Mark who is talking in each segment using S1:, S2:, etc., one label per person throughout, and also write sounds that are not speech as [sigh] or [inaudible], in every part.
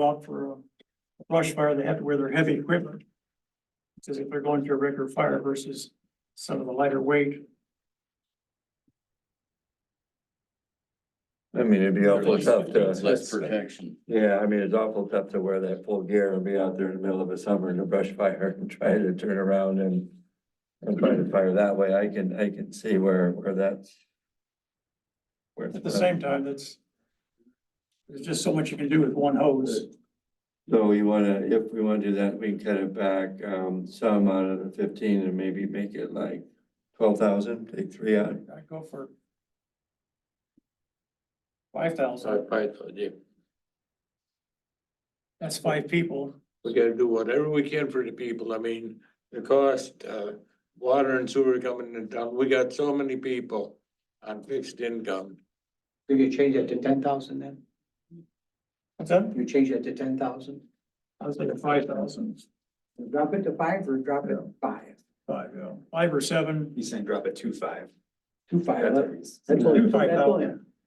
S1: go out for a brush fire, they have to wear their heavy equipment. Because if they're going through a regular fire versus some of the lighter weight.
S2: I mean, it'd be awful tough
S3: It's Less
S2: to,
S3: protection.
S2: [laughs] yeah, I mean, it's awful tough to wear that full gear and be out there in the middle of a summer in a brush fire [laughs] and try to turn around and. And try to fire that way. I can, I can see where, where that's. where it's
S1: At the same time, that's. There's just so much you can do with one hose.
S2: So we wanna, if we wanna do that, we can cut it back, um, some out of the fifteen and maybe make it like twelve thousand, take three out.
S1: I'd go for. Five thousand,
S4: We
S1: that's five people.
S4: gotta do whatever we can for the people. I mean, the cost, uh, water and sewer coming in town. We got so many people on fixed income.
S5: So you change that to ten thousand then?
S1: What's that?
S5: You change that to ten thousand?
S1: I was thinking five thousand,
S5: Drop it to five or drop it to five?
S1: five, yeah, five or seven.
S6: He's saying drop it two five.
S5: Two five.
S6: That's-
S5: That's only,
S1: Two five
S5: that's only,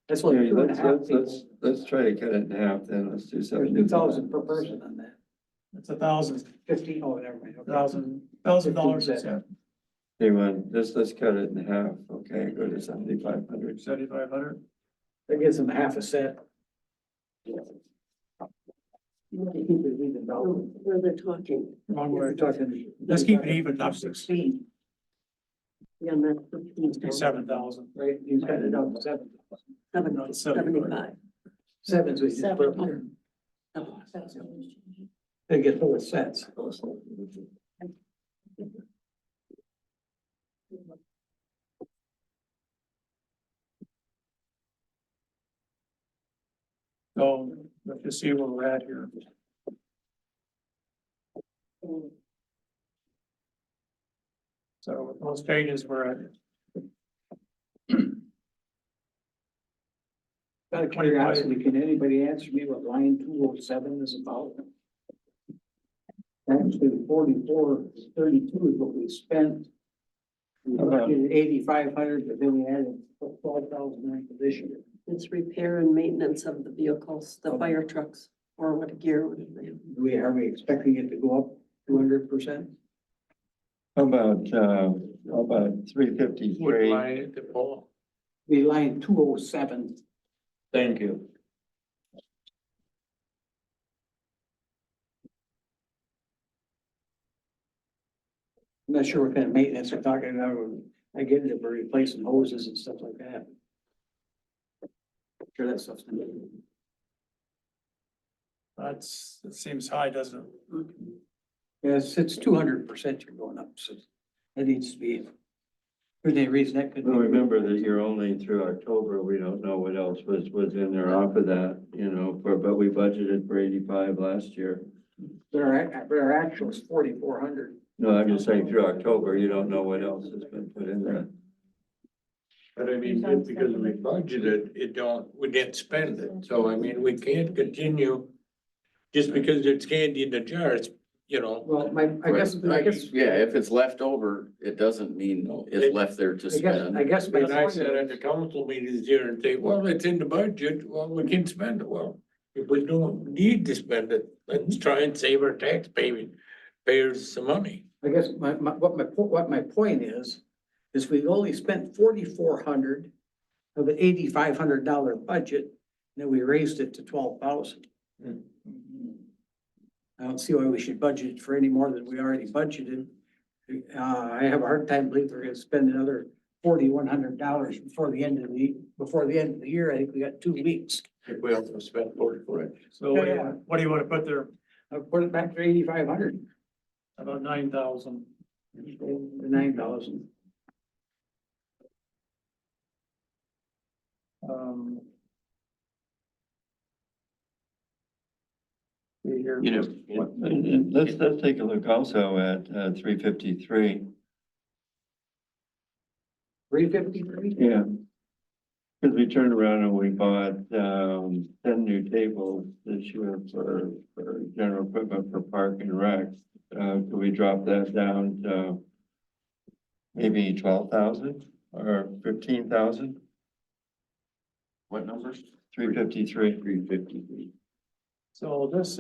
S5: that's only
S2: Okay,
S5: two and a
S2: Let's,
S5: half
S2: let's,
S5: people.
S2: let's, let's try to cut it in half then, let's do
S5: There's
S2: seventy.
S5: two thousand per person on that.
S1: It's a thousand,
S5: Fifteen, oh, never mind. okay.
S1: thousand, thousand dollars, yeah,
S2: Anyone, let's, let's cut it in half, okay, go to seventy-five hundred.
S1: seventy-five hundred.
S5: That gives them half a set. We're
S7: Where they're talking,
S1: Wrong way.
S5: talking.
S1: Let's keep it even, not six,
S7: speed. Yeah, and that's fifteen.
S1: seven thousand.
S5: Right, you cut it down to seven.
S1: no,
S7: Seven,
S1: seven.
S7: seventy-five.
S5: Oh, Sevens we just put up there.
S7: Seven. Oh, seven.
S5: They get full of sets.
S1: So, let's just see where we're at here. So with those changes, we're at
S5: Out of curiosity, can anybody answer me what line two oh seven is about? Actually, forty-four, thirty-two is what we spent. We budgeted eighty-five hundred, but then we added twelve thousand nine position.
S7: It's repair and maintenance of the vehicles, the fire trucks, or what gear would it be?
S5: Do we, are we expecting it to go up two hundred percent?
S2: How about, uh, how about three
S4: Would
S2: fifty-three?
S4: line it to Paul.
S5: The line two oh seven,
S6: Thank you.
S5: I'm not sure what kind of maintenance we're talking about. I get it, if we're replacing hoses and stuff like that. Sure, that stuff's. gonna be-
S1: That's, it seems high, doesn't it?
S5: Yes, it's two hundred percent you're going up, so that needs to be, there's any reason that could. be-
S2: Well, remember that you're only through October, we don't know what else was, was in there off of that, you know, for, but we budgeted for eighty-five last year.
S5: But our, ac- but our actual is forty-four hundred.
S2: No, I'm just saying through October, you don't know what else has been put in there.
S4: But I mean, just because we budgeted, it don't, we didn't spend it. So I mean, we can't continue just because it's candy in the jar, it's, you know.
S5: Well, my, I guess, I guess,
S3: Yeah, if it's left over, it doesn't mean
S4: It-
S3: it's left there to
S5: I guess,
S3: spend.
S5: I guess my
S4: But I
S5: point
S4: said at
S5: is,
S4: the council meetings here and say, well, it's in the budget, well, we can spend it, well, if we don't need to spend it, let's try and save our tax paying, payers some money.
S5: I guess my, my, what my, po- what my point is, is we've only spent forty-four hundred of an eighty-five hundred dollar budget, and then we raised it to twelve thousand.
S4: Hmm.
S5: I don't see why we should budget for any more than we already budgeted. Uh, I have a hard time believing we're gonna spend another forty-one hundred dollars before the end of the, before the end of the year. I think we got two weeks.
S4: If we also spent forty-four. it.
S1: So what do you, want- what do you want to put there?
S5: I'll put it back to eighty-five hundred,
S1: About nine thousand.
S5: nine thousand.
S1: Um. see here.
S2: You know, and- and let's, let's take a look also at, uh, three fifty-three.
S5: Three fifty-three?
S2: Yeah. Because we turned around and we bought, um, ten new tables this year for, for general equipment for park and rec. Uh, could we drop that down to maybe twelve thousand or fifteen thousand,
S3: What numbers?
S2: three fifty-three?
S3: Three fifty-three.
S1: So this is.